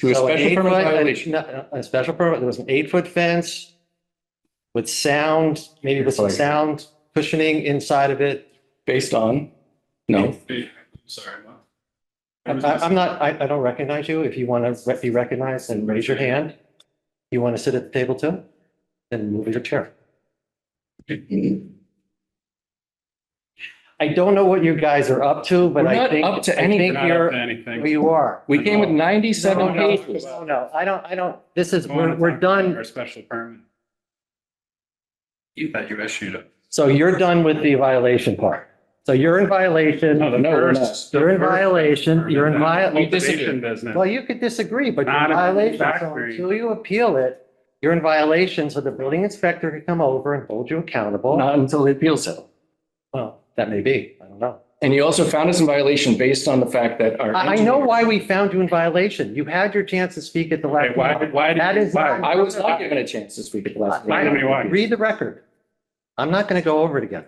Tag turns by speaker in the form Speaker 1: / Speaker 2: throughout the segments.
Speaker 1: Through a
Speaker 2: So an
Speaker 1: special
Speaker 2: eight
Speaker 1: permit
Speaker 2: foot- an-
Speaker 1: violation.
Speaker 2: no, A special permit, there was an eight foot fence with sound, maybe with some
Speaker 1: Like-
Speaker 2: sound cushioning inside of it.
Speaker 1: Based on, no,
Speaker 3: Hey, Sorry, what?
Speaker 2: I, I- I'm not, I, I don't recognize you. If you want to be recognized, then raise your hand. You want to sit at the table too? Then move your chair. I don't know what you guys are up to, but
Speaker 1: We're
Speaker 2: I
Speaker 1: not
Speaker 2: think.
Speaker 1: up to
Speaker 2: I think
Speaker 1: anything.
Speaker 3: Not up
Speaker 2: you're-
Speaker 3: to anything.
Speaker 2: well, You are.
Speaker 1: we came with
Speaker 2: No,
Speaker 1: ninety-seven
Speaker 2: no,
Speaker 1: pages.
Speaker 2: No, no, I don't, I don't, this is,
Speaker 3: I wanna
Speaker 2: we're, we're
Speaker 3: talk about
Speaker 2: done.
Speaker 3: Our special permit. You thought you issued it.
Speaker 2: So you're done with the violation part. So you're in violation.
Speaker 3: No, the
Speaker 1: No, we're
Speaker 3: first-
Speaker 2: You're in
Speaker 3: the first
Speaker 2: violation, you're in
Speaker 3: permit,
Speaker 2: violation.
Speaker 1: We disagree.
Speaker 3: cultivation Business.
Speaker 2: Well, you could disagree, but you're
Speaker 3: Not
Speaker 2: in
Speaker 3: in
Speaker 2: violation. So
Speaker 3: factory.
Speaker 2: until you appeal it, you're in violation, so the building inspector could come over and hold you accountable.
Speaker 1: Not until the appeal settled.
Speaker 2: Well, that may be, I don't know.
Speaker 1: And he also found us in violation based on the fact that our.
Speaker 2: I, I know
Speaker 1: engineer-
Speaker 2: why we found you in violation. You had your chance to speak at the
Speaker 3: Okay,
Speaker 2: last.
Speaker 3: Why, why? did
Speaker 2: That
Speaker 3: you-
Speaker 2: is
Speaker 3: why?
Speaker 2: not-
Speaker 1: I was not given a chance this week at the last.
Speaker 3: Why?
Speaker 1: meeting.
Speaker 3: Tell me why.
Speaker 2: Read the record. I'm not going to go over it again.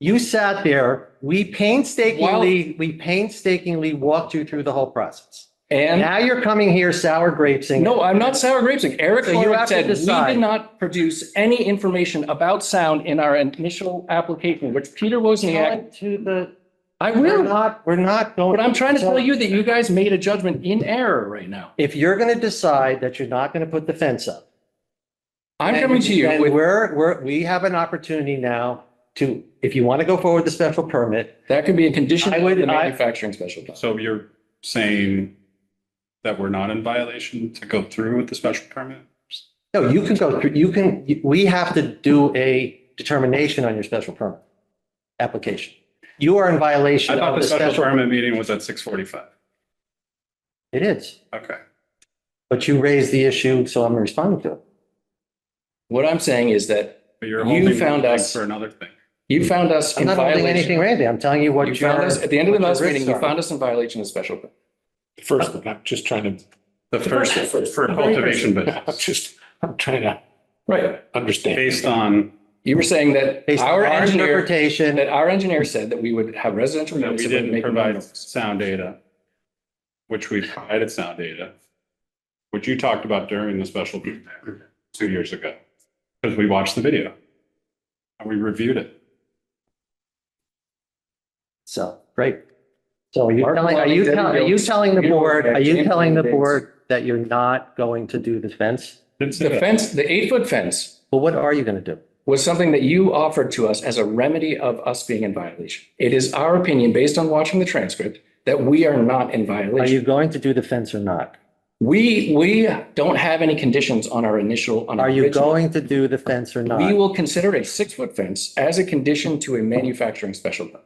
Speaker 2: You sat there, we painstakingly, we painstakingly walked you through the whole process.
Speaker 1: And,
Speaker 2: Now you're coming here sour grapesing.
Speaker 1: no, I'm not sour grapesing. Eric
Speaker 2: So you
Speaker 1: Horowitz
Speaker 2: have to
Speaker 1: said, we
Speaker 2: decide."
Speaker 1: did not produce any information about sound in our initial application, which Peter Wozniak,
Speaker 2: Going To the,
Speaker 1: I
Speaker 2: we're
Speaker 1: will.
Speaker 2: not, we're not going.
Speaker 1: But I'm trying to tell you that you guys made a judgment in error right now.
Speaker 2: If you're going to decide that you're not going to put the fence up.
Speaker 1: I'm coming to you
Speaker 2: then
Speaker 1: with
Speaker 2: We're, we're, we have an opportunity now to, if you want to go forward with the special permit,
Speaker 1: That could be a condition
Speaker 2: I
Speaker 1: of
Speaker 2: would-
Speaker 1: the
Speaker 2: I-
Speaker 1: manufacturing special permit.
Speaker 3: So you're saying that we're not in violation to go through with the special permit?
Speaker 2: no, you can go through, you can, we have to do a determination on your special permit application. You are in
Speaker 3: I
Speaker 2: violation
Speaker 3: thought
Speaker 2: of
Speaker 3: the
Speaker 2: the
Speaker 3: special
Speaker 2: special,
Speaker 3: permit meeting was at six forty-five.
Speaker 2: it is,
Speaker 3: Okay.
Speaker 2: but you raised the issue, so I'm responding to it.
Speaker 1: What I'm saying is that
Speaker 3: But you're
Speaker 1: You
Speaker 3: holding me
Speaker 1: found
Speaker 3: back
Speaker 1: us-
Speaker 3: For another thing.
Speaker 1: you found us
Speaker 2: Hmm. I'm
Speaker 1: in
Speaker 2: not holding
Speaker 1: violation.
Speaker 2: anything, Randy, I'm telling you what
Speaker 1: You
Speaker 2: your-
Speaker 1: found us, at the end of the
Speaker 2: what your
Speaker 1: last meeting,
Speaker 2: risks
Speaker 1: you
Speaker 2: are.
Speaker 1: found us in violation of the special permit.
Speaker 4: The first one, I'm just trying to,
Speaker 3: The first, for cultivation
Speaker 4: I'm
Speaker 3: business,
Speaker 4: just, I'm trying to
Speaker 1: Right.
Speaker 4: understand.
Speaker 3: based on
Speaker 1: You were saying that
Speaker 2: Based on
Speaker 1: our
Speaker 2: our
Speaker 1: engineer,
Speaker 2: interpretation.
Speaker 1: that our engineer said that we would have residential.
Speaker 3: that
Speaker 1: units
Speaker 3: we
Speaker 1: that would
Speaker 3: didn't
Speaker 1: make no
Speaker 3: provide
Speaker 1: noise.
Speaker 3: sound data, which we provided sound data, which you talked about during the special meeting two years ago, because we watched the video and we reviewed it.
Speaker 2: So, great. So are you
Speaker 1: Mark
Speaker 2: telling, are
Speaker 1: Maloney,
Speaker 2: you
Speaker 1: Debbie
Speaker 2: telling, are you
Speaker 1: Gilbert,
Speaker 2: telling the
Speaker 1: Peter
Speaker 2: board,
Speaker 1: Wolfgang,
Speaker 2: are you
Speaker 1: James
Speaker 2: telling the
Speaker 1: Williams.
Speaker 2: board that you're not going to do the fence?
Speaker 3: Didn't say
Speaker 1: The
Speaker 3: that.
Speaker 1: fence, the eight foot fence
Speaker 2: Well, what are you going to do?
Speaker 1: was something that you offered to us as a remedy of us being in violation. It is our opinion, based on watching the transcript, that we are not in
Speaker 2: Are
Speaker 1: violation.
Speaker 2: you going to do the fence or not?
Speaker 1: We, we don't have any conditions on our initial. on our
Speaker 2: Are you
Speaker 1: original-
Speaker 2: going to do the fence or
Speaker 1: We
Speaker 2: not?
Speaker 1: will consider a six-foot fence as a condition to a manufacturing special permit.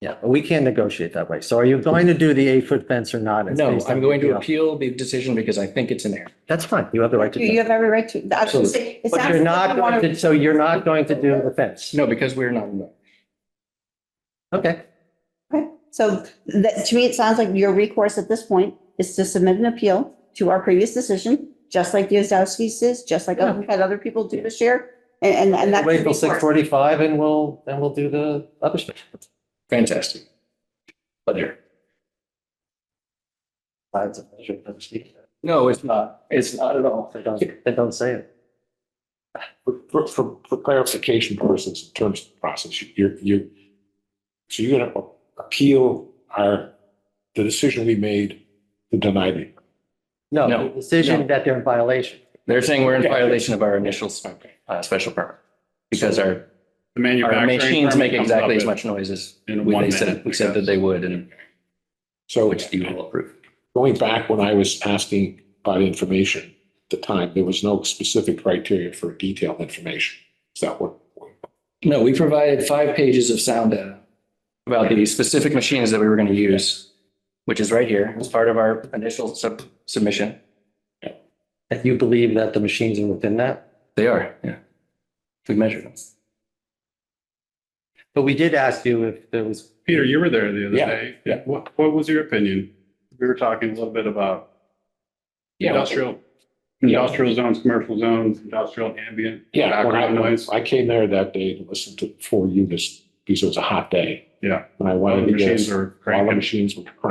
Speaker 2: Yeah, but we can't negotiate that way. So are you going to do the eight foot fence or not? It's
Speaker 1: No,
Speaker 2: based on-
Speaker 1: I'm going to
Speaker 2: yeah.
Speaker 1: appeal the decision because I think it's an error.
Speaker 2: That's fine. You have the right to
Speaker 5: You you
Speaker 2: do it.
Speaker 5: have every right to. I was gonna say, it
Speaker 2: But
Speaker 5: sounds
Speaker 2: you're
Speaker 5: like
Speaker 2: not,
Speaker 5: you
Speaker 2: going
Speaker 5: wanna-
Speaker 2: to- so you're not going to do the fence?
Speaker 1: No, because we're not, in the-
Speaker 2: Okay,
Speaker 5: So that, to me, it sounds like your recourse at this point is to submit an appeal to our previous decision, just like the Ozdowski's is, just like
Speaker 2: Yeah.
Speaker 5: we've had other people do this year. And, and- and that's.
Speaker 2: wait till
Speaker 5: your
Speaker 2: six
Speaker 5: recourse.
Speaker 2: forty-five and we'll, then we'll do the other stuff.
Speaker 1: fantastic. Pleasure.
Speaker 2: Lines of measure, don't speak.
Speaker 1: No, it's not. It's not at all.
Speaker 2: They don't- they don't say it.
Speaker 4: For, for, for clarification purposes, in terms of the process, you're, you're, so you're gonna appeal our, the decision we made to deny the.
Speaker 2: No,
Speaker 1: No,
Speaker 2: the decision
Speaker 1: no.
Speaker 2: that they're in violation.
Speaker 1: They're saying we're in violation of our initial s- uh, special permit because our, our
Speaker 3: The manufacturing.
Speaker 1: machines
Speaker 3: permit
Speaker 1: make
Speaker 3: comes
Speaker 1: exactly
Speaker 3: up
Speaker 1: as
Speaker 3: in-
Speaker 1: much noise as
Speaker 3: In
Speaker 1: we
Speaker 3: one
Speaker 1: they
Speaker 3: minute.
Speaker 1: said, we said that they would and
Speaker 4: So
Speaker 1: which you will approve.
Speaker 4: going back when I was asking about information at the time, there was no specific criteria for detailed information. Is that what?
Speaker 1: No, we provided five pages of sound data about the specific machines that we were going to use, which is right here as part of our initial sub submission.
Speaker 2: That you believe that the machines are within that?
Speaker 1: They are, yeah. We measured them.
Speaker 2: But we did ask you if there was,
Speaker 3: Peter, you were there the other
Speaker 4: Yeah,
Speaker 3: day.
Speaker 4: yeah.
Speaker 3: What, what was your opinion? We were talking a little bit about industrial, industrial zones, commercial zones, industrial ambient.
Speaker 4: Yeah, when
Speaker 3: Background
Speaker 4: I,
Speaker 3: noise.
Speaker 4: I came there that day to listen to four units because it was a hot day.
Speaker 3: Yeah.
Speaker 4: And I
Speaker 3: All
Speaker 4: wanted
Speaker 3: the
Speaker 4: to get,
Speaker 3: machines are
Speaker 4: all the
Speaker 3: cranking.
Speaker 4: machines were cranking.